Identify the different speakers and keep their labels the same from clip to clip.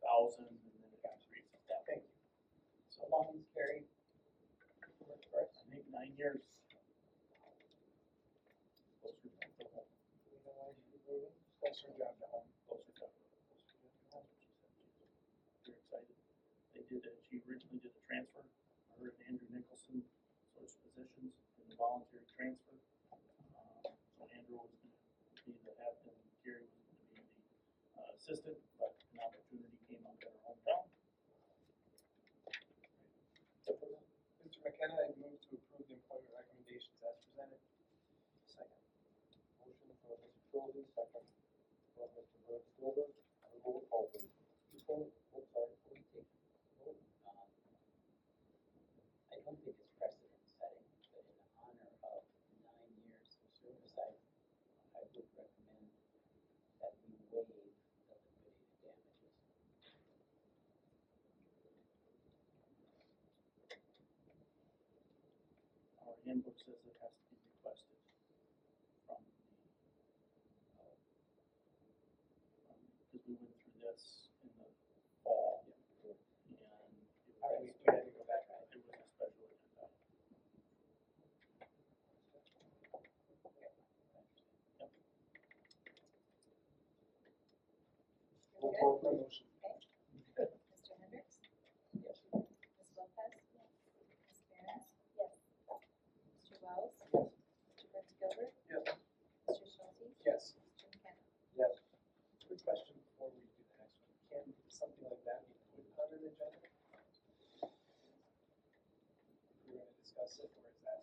Speaker 1: thousand, and then it got raised at that
Speaker 2: Okay.
Speaker 1: point. So
Speaker 2: So long as Gary works for us,
Speaker 1: I think nine years. Closer to home.
Speaker 2: we know why she's leaving.
Speaker 1: Closer job to home. Closer job. Closer job to home. They're excited. They did, a- she originally did a transfer, her and Andrew Nicholson switched positions in the voluntary transfer. Um, So Andrew was gonna be the head and Gary was gonna be the uh, assistant, but an opportunity came up in her hometown.
Speaker 3: Mr. McKenna, I move to approve the employment recommendations as presented. Second.
Speaker 4: Motion for Mr. Schulze, second for Mr. Burkholder, roll call please.
Speaker 2: Before, oh, sorry, before we take the vote, um, I don't think it's precedent setting, but in honor of nine years of service, I, I would recommend that we waive the liquidated damages.
Speaker 1: Our handbook says it has to be requested from the, uh, because we went through this in the fall. And it
Speaker 3: All right,
Speaker 1: was,
Speaker 3: we had to go back.
Speaker 1: it was a special agenda.
Speaker 4: Roll call please.
Speaker 3: Motion.
Speaker 5: Mr. Hendricks?
Speaker 2: Yes.
Speaker 5: Ms. Lopez? Ms. Barron? Yes. Mr. Wells?
Speaker 3: Yes.
Speaker 5: Mr. Brent Gilbert?
Speaker 3: Yes.
Speaker 5: Mr. Schulte?
Speaker 3: Yes.
Speaker 5: Mr. McKenna?
Speaker 4: Yes.
Speaker 3: Quick question before we do the next one. Can something like that be put on an agenda? If we're gonna discuss it, or is that?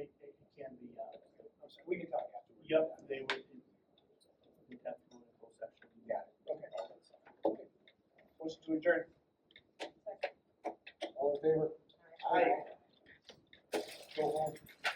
Speaker 1: It, it can be, uh,
Speaker 3: I'm sorry, we can talk afterwards.
Speaker 1: yep, they would, we'd have to go into closed session.
Speaker 3: Got it, okay. Okay. Motion to adjourn.
Speaker 5: Second.
Speaker 4: All in favor?